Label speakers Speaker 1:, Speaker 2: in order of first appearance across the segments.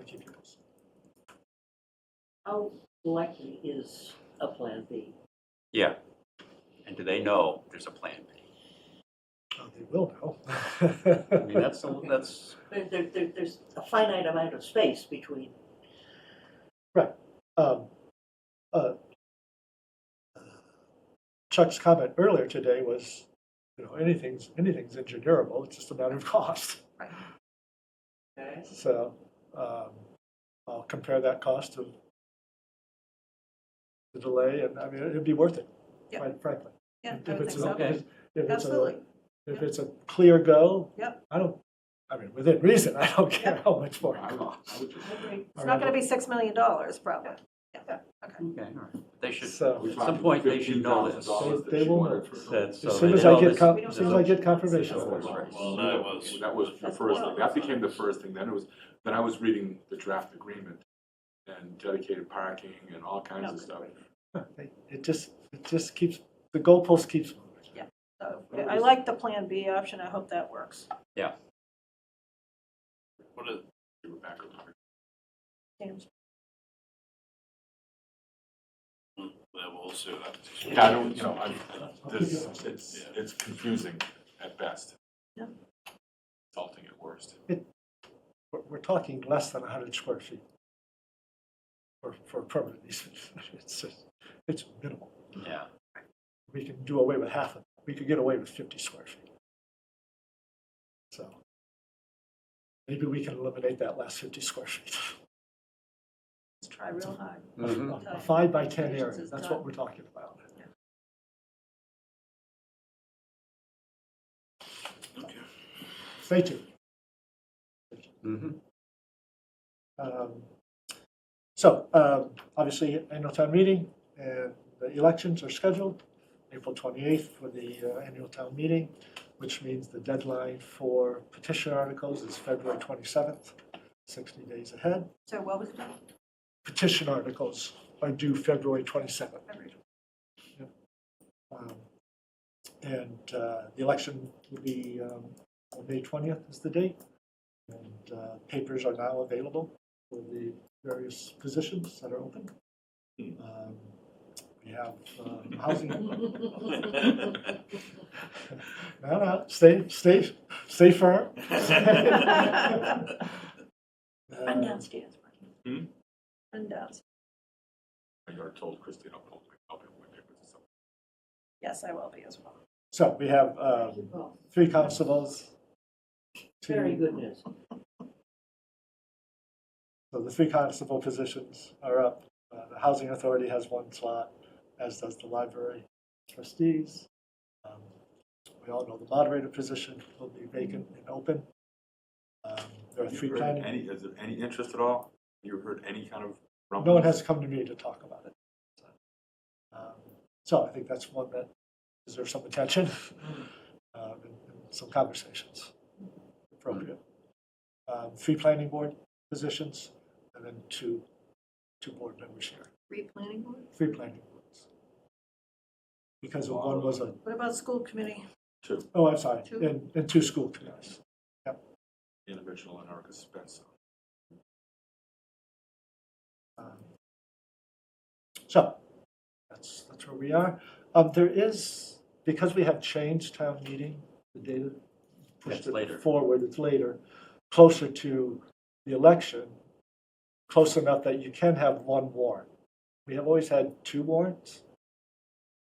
Speaker 1: individuals.
Speaker 2: How likely is a plan B?
Speaker 3: Yeah. And do they know there's a plan B?
Speaker 1: Oh, They will
Speaker 3: I mean,
Speaker 1: know.
Speaker 3: that's, the- that's,
Speaker 2: There, there, there- there's a finite amount of space between,
Speaker 1: Um, uh, Chuck's comment earlier today was, you know, anything's, anything's engineerable, it's just a matter of cost.
Speaker 2: okay?
Speaker 1: So um, I'll compare that cost to the delay, and I mean, it'd be worth it,
Speaker 4: Yeah.
Speaker 1: quite frankly.
Speaker 4: Yeah,
Speaker 1: If
Speaker 4: I would
Speaker 1: it's
Speaker 4: think
Speaker 1: an-
Speaker 4: so.
Speaker 3: okay.
Speaker 1: if it's a-
Speaker 4: Absolutely.
Speaker 1: If
Speaker 4: Yeah.
Speaker 1: it's a clear go.
Speaker 4: Yep.
Speaker 1: I don't, I mean, within reason, I don't care
Speaker 4: Yeah.
Speaker 1: how much more
Speaker 3: I
Speaker 1: it
Speaker 3: would-
Speaker 1: costs.
Speaker 3: I would just,
Speaker 2: I agree.
Speaker 4: It's not going to be $6 million probably.
Speaker 3: okay, all right. They should,
Speaker 1: So
Speaker 3: at some point, they should know this.
Speaker 1: $15,000 They- they will know.
Speaker 3: That- so
Speaker 1: as soon
Speaker 3: they
Speaker 1: as I
Speaker 3: know
Speaker 1: get,
Speaker 3: this-
Speaker 1: con-
Speaker 4: we don't
Speaker 1: as soon as I get confirmation.
Speaker 3: That's
Speaker 1: of
Speaker 3: what
Speaker 1: it.
Speaker 3: Right.
Speaker 5: Well, that was-
Speaker 6: That was the
Speaker 4: That's
Speaker 6: first
Speaker 4: wild.
Speaker 6: thing, that became the first thing, then it was, then I was reading the draft agreement and dedicated parking and all kinds of stuff.
Speaker 1: It- It just, it just keeps, the goalpost keeps moving.
Speaker 4: So I- I like the Plan B option. I hope that works.
Speaker 5: What is,
Speaker 6: We were back on target.
Speaker 4: James,
Speaker 5: hmm, that will sue that.
Speaker 6: Yeah, I don't, you know, I, this, it's, it's confusing at best.
Speaker 4: Yeah.
Speaker 6: Insulting at worst.
Speaker 1: We're, we're talking less than hundred square feet for, for permanent easements. It's, just- it's minimal.
Speaker 3: Yeah.
Speaker 1: We can do away with half of, it. we could get away with fifty square feet. So maybe we can eliminate that last fifty square feet.
Speaker 4: let's try real hard.
Speaker 3: Mhm.
Speaker 1: A a five by 10 area, that's what we're talking about. Stay tuned. mm-hmm.
Speaker 3: Mhm.
Speaker 1: Um, So, um, obviously, annual town meeting, and the elections are scheduled April 28th for the uh, annual town meeting, which means the deadline for petition articles is February 27th, 60 days ahead.
Speaker 4: So what was that?
Speaker 1: petition articles are due February 27th. Yep. Um, And uh, the election will be um, on May 20th is the date. And uh, papers are now available for the various positions that are open. Um, We have um, housing, no, no, stay, stay, stay firm.
Speaker 4: Run
Speaker 1: Uh,
Speaker 4: downstairs. Ryan.
Speaker 6: Hmm?
Speaker 4: Run downstairs.
Speaker 6: I got told Christie, don't hold me up in my papers or something.
Speaker 4: Yes, I will be as well.
Speaker 1: So we have um,
Speaker 2: Well,
Speaker 1: three constables. two-
Speaker 2: Very good news.
Speaker 1: So the three constable positions are up. Uh, The Housing Authority has one slot, as does the library trustees. Um, We all know the moderator position will be vacant and open. Um, There are
Speaker 6: Have
Speaker 1: three
Speaker 6: you heard
Speaker 1: planning,
Speaker 6: any, is there any interest at all? You heard any kind of rumble?
Speaker 1: no one has come to me to talk about it. Um, So I think that's one that deserves some attention um, and and some conversations appropriate. Um, Three planning board positions, and then two, two board members here.
Speaker 4: Replanning board?
Speaker 1: three planning boards. Because one was a,
Speaker 4: What about school committee?
Speaker 6: Two,
Speaker 1: oh, I'm sorry,
Speaker 4: Two.
Speaker 1: and, and two school committees.
Speaker 6: Ian Mitchell and Erica Spencer.
Speaker 1: Um, So, that's, that's where we are. Um, there is, because we have changed town meeting, the data pushed
Speaker 3: It's
Speaker 1: it
Speaker 3: later.
Speaker 1: forward, it's later, closer to the election, close enough that you can have one warrant. We have always had two warrants,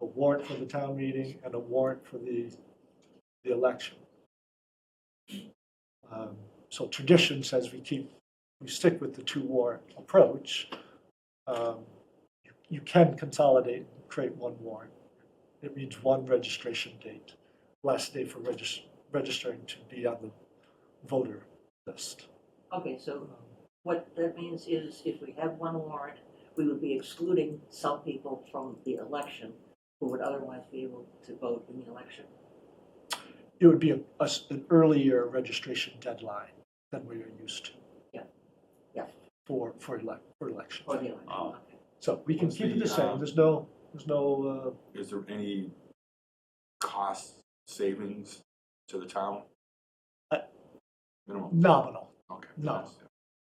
Speaker 1: a warrant for the town meeting and a warrant for the, the election. Um, So tradition says we keep, we stick with the two warrant approach. Um, You can consolidate, and create one warrant. It means one registration date, last day for regis- registering to be on the voter list.
Speaker 2: Okay, so
Speaker 1: Um,
Speaker 2: what that means is if we have one warrant, we would be excluding some people from the election who would otherwise be able to vote in the election.
Speaker 1: It would be a- a s- an earlier registration deadline than we are used to.
Speaker 2: Yeah. Yeah.
Speaker 1: For, for elec, for elections.
Speaker 2: For the election,
Speaker 3: Oh.
Speaker 2: okay.
Speaker 1: So we can
Speaker 6: What's
Speaker 1: keep it
Speaker 6: the,
Speaker 1: the same,
Speaker 6: um,
Speaker 1: there's no, there's no, uh,
Speaker 6: Is there any cost savings to the town?
Speaker 1: Uh,
Speaker 6: Minimum,
Speaker 1: nominal,
Speaker 6: okay.
Speaker 1: no.